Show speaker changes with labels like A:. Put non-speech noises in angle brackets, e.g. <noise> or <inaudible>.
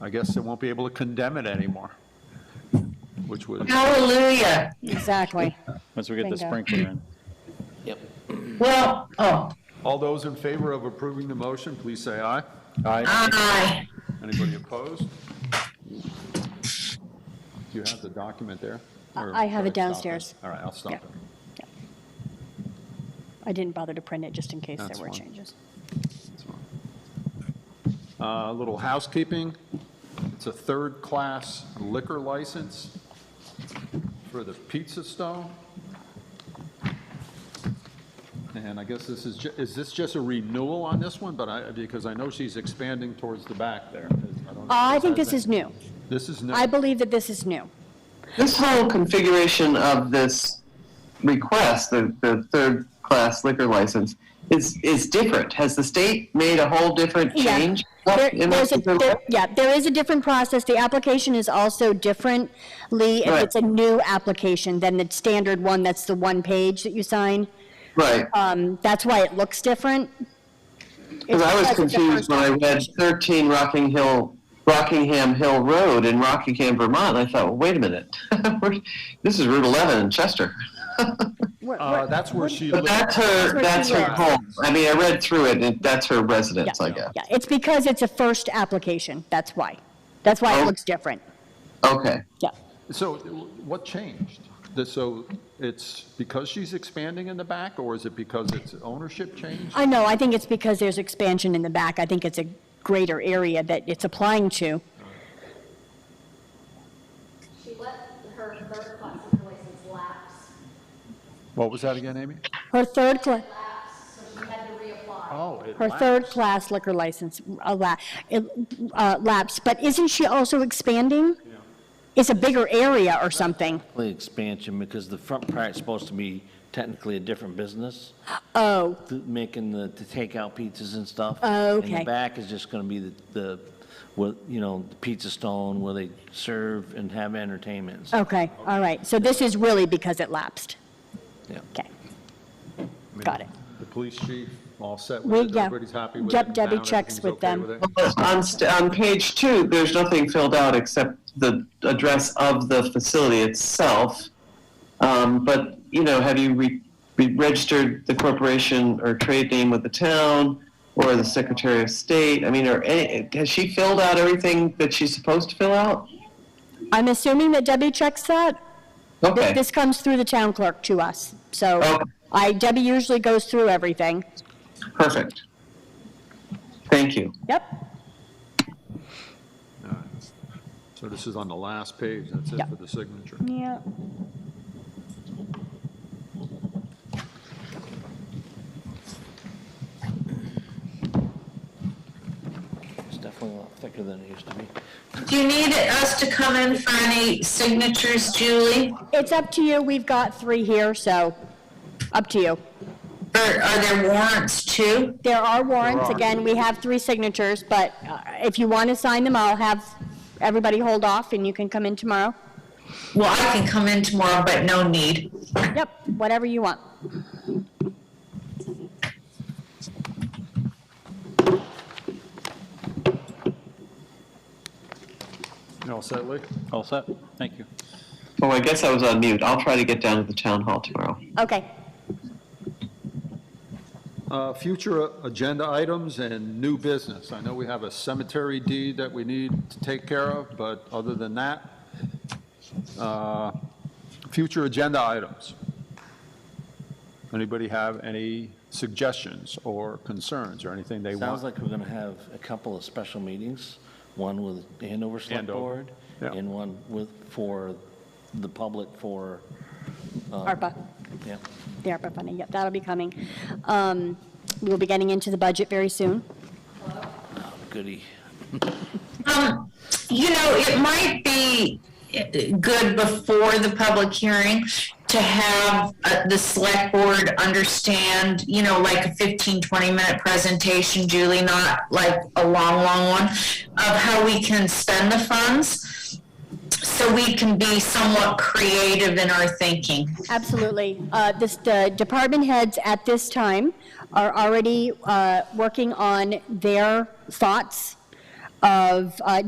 A: I guess they won't be able to condemn it anymore, which was,
B: Hallelujah.
C: <laughs>
D: Exactly.
E: Once we get the
D: Bingo.
E: sprinkler in.
F: Yep.
B: Well, oh,
A: all those in favor of approving the motion, please say aye.
B: aye.
A: Anybody opposed? Do you have the document there? Or-
D: I have it
A: should stop
D: downstairs.
A: All right, I'll stop
D: Yeah.
A: it.
D: I didn't bother to print it just in case
A: That's
D: there were
A: fine.
D: changes.
A: That's fine. Uh, A little housekeeping. It's a third-class liquor license for the Pizza Stone. And I guess this is, ju- is this just a renewal on this one? But I, because I know she's expanding towards the back there. I don't know
D: Oh, I
A: if
D: think
A: has
D: this is
A: any-
D: new.
A: This is new.
D: I believe that this is new.
C: This whole configuration of this request, the, the third class liquor license, is, is different. Has the state made a whole different
D: Yeah.
C: change?
D: There-
C: in
D: there's a-
C: this particular-
D: there- Yeah, there is a different process. The application is also different, Lee, if
C: Right.
D: it's a new application than the standard one, that's the one page that you sign.
C: Right,
D: Um, that's why it looks different.
C: because I was
D: It's because it's the
C: confused
D: first
C: when I read
D: application.
C: thirteen Rocking Hill, Rockingham Hill Road in Rockingham, Vermont. I thought, well, wait a minute, <laughs> We're- this is Route eleven in Chester. <laughs>
D: We're-
A: Uh,
D: we're-
A: That's where she
C: But
A: lives.
C: that's her,
D: where
C: that's
D: she
C: her
D: lives.
C: home. I mean, I read through it, and that's her
D: yeah,
C: residence, I guess.
D: Yeah, it's because it's a first application, that's why. That's why it
C: Oh.
D: looks different,
C: Okay,
D: yeah.
A: So what changed? The- So it's because she's expanding in the back, or is it because its ownership changed?
D: I know, I think it's because there's expansion in the back. I think it's a greater area that it's applying to.
G: She let her third class liquor license lapse,
A: What was that again, Amy?
D: Her third, cla-
G: lapse, so she had to reapply.
A: Oh, it
D: her
A: lapsed.
D: third-class liquor license uh, la- it, uh, lapsed, but isn't she also expanding? It's a bigger area or something.
F: Play expansion, because the front part's supposed to be technically a different business,
D: Oh,
F: th- making the, to take out pizzas and stuff.
D: Oh,
F: And
D: okay.
F: the back is just gonna be the, the, what, you know, the pizza stone where they serve and have entertainments.
D: okay, all right. So this is really because it lapsed.
F: Yeah.
D: Okay, got it.
A: The police chief, all set
D: We-
A: with it,
D: yeah.
A: everybody's happy with it?
D: Yep,
A: in
D: Debbie
A: town,
D: checks
A: everything's
D: with
A: okay
D: them.
A: it?
C: on, st- on page two, there's nothing filled out except the address of the facility itself. Um, but, you know, have you re- re- registered the corporation or trade name with the town or the Secretary of State? I mean, or any, has she filled out everything that she's supposed to fill out?
D: I'm assuming that Debbie checks that? Th-
C: Okay,
D: This comes through the town clerk to us, so
C: Oh.
D: I, Debbie usually goes through everything.
C: perfect. Thank you.
D: Yep,
A: All right. So this is on the last page, that's it
D: Yep. Mm-hmm.
A: for the signature.
D: yeah. Oh.
F: It's definitely a lot thicker than it used to be.
B: Do you need us to come in for any signatures, Julie?
D: It's up to you, we've got three here, so up to you.
B: Or are there warrants too?
D: There are warrants,
A: There are.
D: again, we have three signatures, but uh, if you want to sign them, I'll have everybody hold off and you can come in tomorrow.
B: Well, I can come in tomorrow, but no need.
D: Yep, whatever you want.
A: You all set, Lee?
E: All set? Thank you.
C: Oh, I guess I was on mute. I'll try to get down to the town hall tomorrow.
D: Okay,
A: Uh, Future agenda items and new business. I know we have a cemetery deed that we need to take care of, but other than that, uh, future agenda items. Anybody have any suggestions or concerns or anything they want?
F: Sounds like we're gonna have a couple of special meetings, one with Andover Select
A: Andover,
F: Board,
A: yeah.
F: and one with, for the public for,
A: Uh.
D: ARPA,
F: yeah.
D: the ARPA funding, yep, that'll be coming. Um, We'll be getting into the budget very soon.
F: goody.
B: Um, you know, it might be good before the public hearing to have uh, the select board understand, you know, like a 15, 20 minute presentation, Julie, not like a long, long one, of how we can spend the funds so we can be somewhat creative in our thinking.
D: Absolutely. Uh, This, the department heads at this time are already uh, working on their thoughts of uh,